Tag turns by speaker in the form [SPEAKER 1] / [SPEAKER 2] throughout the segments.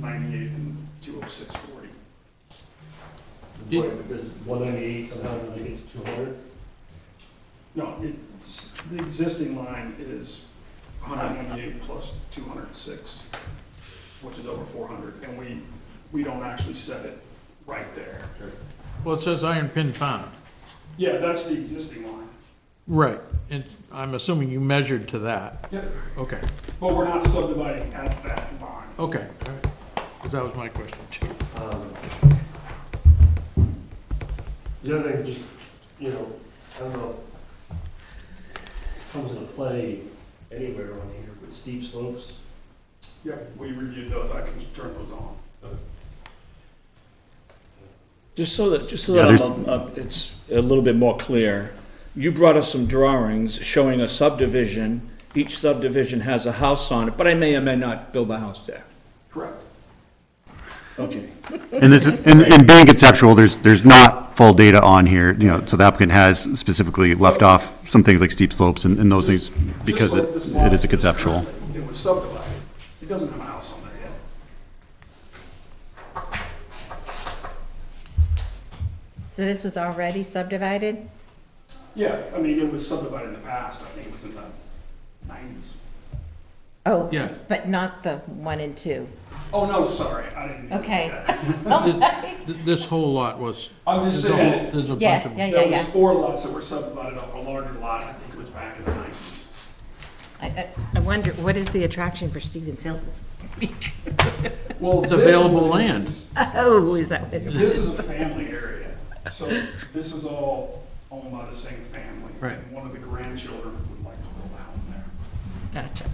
[SPEAKER 1] ninety-eight and two oh six forty.
[SPEAKER 2] Did-
[SPEAKER 3] Right, Because one ninety-eight somehow doesn't get to two hundred.
[SPEAKER 1] No, it's, the existing line is one hundred ninety-eight plus two hundred six, which is over four hundred, and we, we don't actually set it right there.
[SPEAKER 2] Well, it says iron pin found.
[SPEAKER 1] Yeah, that's the existing line.
[SPEAKER 2] Right. And I'm assuming you measured to that.
[SPEAKER 1] Yep.
[SPEAKER 2] Okay,
[SPEAKER 1] But we're not subdividing at that line.
[SPEAKER 2] okay, all right. 'Cause that was my question too.
[SPEAKER 3] Um, The other thing, just, you know, I don't know, comes into play anywhere on here with steep slopes.
[SPEAKER 1] Yeah, we reviewed those, I can turn those on.
[SPEAKER 4] Just so that, just so
[SPEAKER 5] Yeah,
[SPEAKER 4] that
[SPEAKER 5] there's-
[SPEAKER 4] I'm, uh, it's a little bit more clear, you brought us some drawings showing a subdivision. Each subdivision has a house on it, but I may or may not build a house there.
[SPEAKER 1] Correct.
[SPEAKER 4] Okay.
[SPEAKER 5] And this, is- and, and being conceptual, there's, there's not full data on here, you know, so the applicant has specifically left off some things like steep slopes and, and those things because
[SPEAKER 1] Just
[SPEAKER 5] it,
[SPEAKER 1] like this lot
[SPEAKER 5] it is a
[SPEAKER 1] that's
[SPEAKER 5] conceptual.
[SPEAKER 1] currently- It was subdivided. It doesn't have a house on there yet.
[SPEAKER 6] So this was already subdivided?
[SPEAKER 1] Yeah, I mean, it was subdivided in the past, I think it was in the nineties.
[SPEAKER 6] Oh,
[SPEAKER 2] Yeah.
[SPEAKER 6] but not the one and two.
[SPEAKER 1] Oh, no, sorry, I didn't. mean to do
[SPEAKER 6] Okay.
[SPEAKER 1] that.
[SPEAKER 2] Th- This whole lot was,
[SPEAKER 1] I'm just
[SPEAKER 2] there's a whole,
[SPEAKER 1] saying,
[SPEAKER 2] there's a bunch
[SPEAKER 6] Yeah,
[SPEAKER 2] of
[SPEAKER 6] yeah,
[SPEAKER 2] them.
[SPEAKER 6] yeah,
[SPEAKER 1] there
[SPEAKER 6] yeah.
[SPEAKER 1] was four lots that were subdivided off a larger lot, I think it was back in the nineties.
[SPEAKER 6] I, I- I wonder, what is the attraction for Stevens Hill? this-
[SPEAKER 1] Well,
[SPEAKER 2] It's
[SPEAKER 1] this
[SPEAKER 2] available
[SPEAKER 1] one
[SPEAKER 2] land.
[SPEAKER 1] is-
[SPEAKER 6] Oh, is that,
[SPEAKER 1] This is a family area, so this is all owned by the same family.
[SPEAKER 2] Right.
[SPEAKER 1] And One of the grandchildren would like to build a home there.
[SPEAKER 6] gotcha.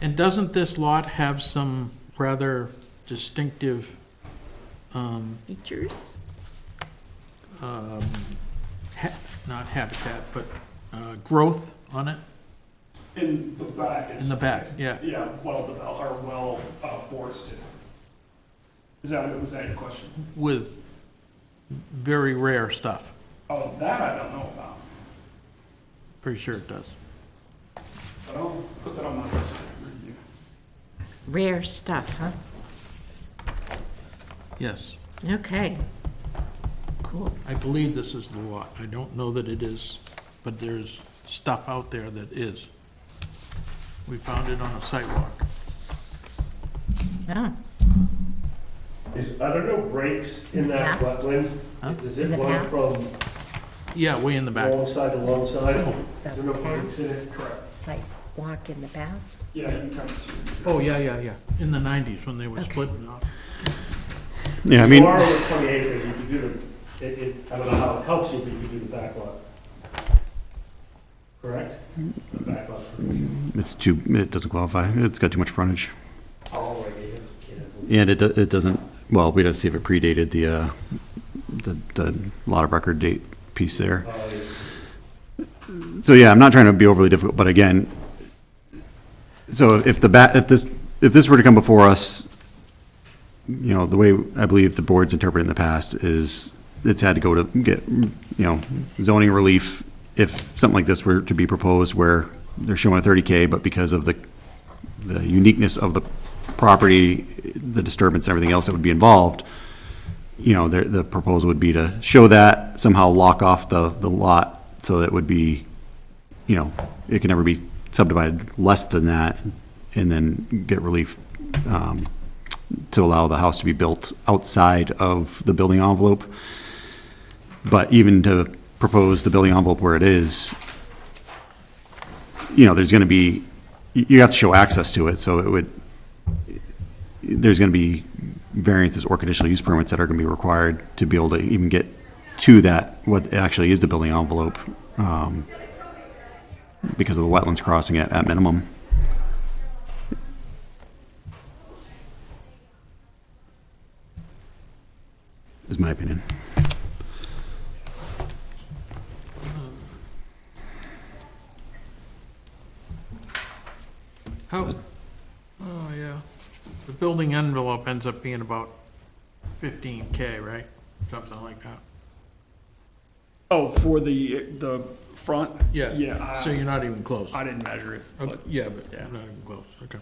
[SPEAKER 2] And doesn't this lot have some rather distinctive, um,
[SPEAKER 6] Features?
[SPEAKER 2] um, ha- not habitat, but, uh, growth on it
[SPEAKER 1] In the back. it's-
[SPEAKER 2] in the back? Yeah.
[SPEAKER 1] Yeah, well developed, or well uh, forested. Is that, was that your question?
[SPEAKER 2] With very rare stuff.
[SPEAKER 1] Oh, that I don't know about,
[SPEAKER 2] Pretty sure it does.
[SPEAKER 1] but I'll put that on my list to review.
[SPEAKER 6] Rare stuff, huh?
[SPEAKER 2] Yes.
[SPEAKER 6] Okay. Cool.
[SPEAKER 2] I believe this is the lot. I don't know that it is, but there's stuff out there that is. We found it on a sidewalk.
[SPEAKER 6] Oh,
[SPEAKER 3] Is, are there no breaks in that
[SPEAKER 6] Past?
[SPEAKER 3] wetland?
[SPEAKER 2] Huh?
[SPEAKER 3] Does
[SPEAKER 6] In
[SPEAKER 3] it
[SPEAKER 6] the
[SPEAKER 3] run
[SPEAKER 6] past?
[SPEAKER 3] from
[SPEAKER 2] Yeah, way in the back.
[SPEAKER 3] long side to long side?
[SPEAKER 2] Oh.
[SPEAKER 3] Is there no breaks in it? Correct.
[SPEAKER 6] site walk in the past?
[SPEAKER 1] Yeah, you can come to.
[SPEAKER 2] Oh, yeah, yeah, yeah. In the nineties when they were
[SPEAKER 6] Okay.
[SPEAKER 2] splitting up.
[SPEAKER 5] Yeah, I mean,
[SPEAKER 3] You are over twenty acres, you could do the, it, it, I don't know how it helps you, but you could do the back lot. Correct? The back lot. provision.
[SPEAKER 5] it's too, it doesn't qualify. It's got too much frontage.
[SPEAKER 3] Oh, right, you can't.
[SPEAKER 5] And it, do- it doesn't, well, we'd have to see if it predated the, uh, the, the lot of record date piece there.
[SPEAKER 3] Oh, yeah.
[SPEAKER 5] So yeah, I'm not trying to be overly difficult, but again, so if the ba, if this, if this were to come before us, you know, the way I believe the board's interpreted in the past is it's had to go to get, you know, zoning relief if something like this were to be proposed where they're showing a thirty K, but because of the, the uniqueness of the property, the disturbance and everything else that would be involved, you know, the, the proposal would be to show that, somehow lock off the, the lot, so that it would be, you know, it can never be subdivided less than that, and then get relief, um, to allow the house to be built outside of the building envelope. But even to propose the building envelope where it is, you know, there's gonna be, you, you have to show access to it, so it would, there's gonna be variances or conditional use permits that are going to be required to be able to even get to that, what actually is the building envelope, um, because of the wetlands crossing at, at minimum. Is my opinion.
[SPEAKER 2] How, oh, yeah. The building envelope ends up being about fifteen K, right? Something like that.
[SPEAKER 1] Oh, for the, the front?
[SPEAKER 2] Yeah.
[SPEAKER 1] Yeah, I-
[SPEAKER 2] So you're not even close.
[SPEAKER 1] I didn't measure it,
[SPEAKER 2] Okay,
[SPEAKER 1] but
[SPEAKER 2] Yeah, but
[SPEAKER 1] yeah.
[SPEAKER 2] not even close, okay.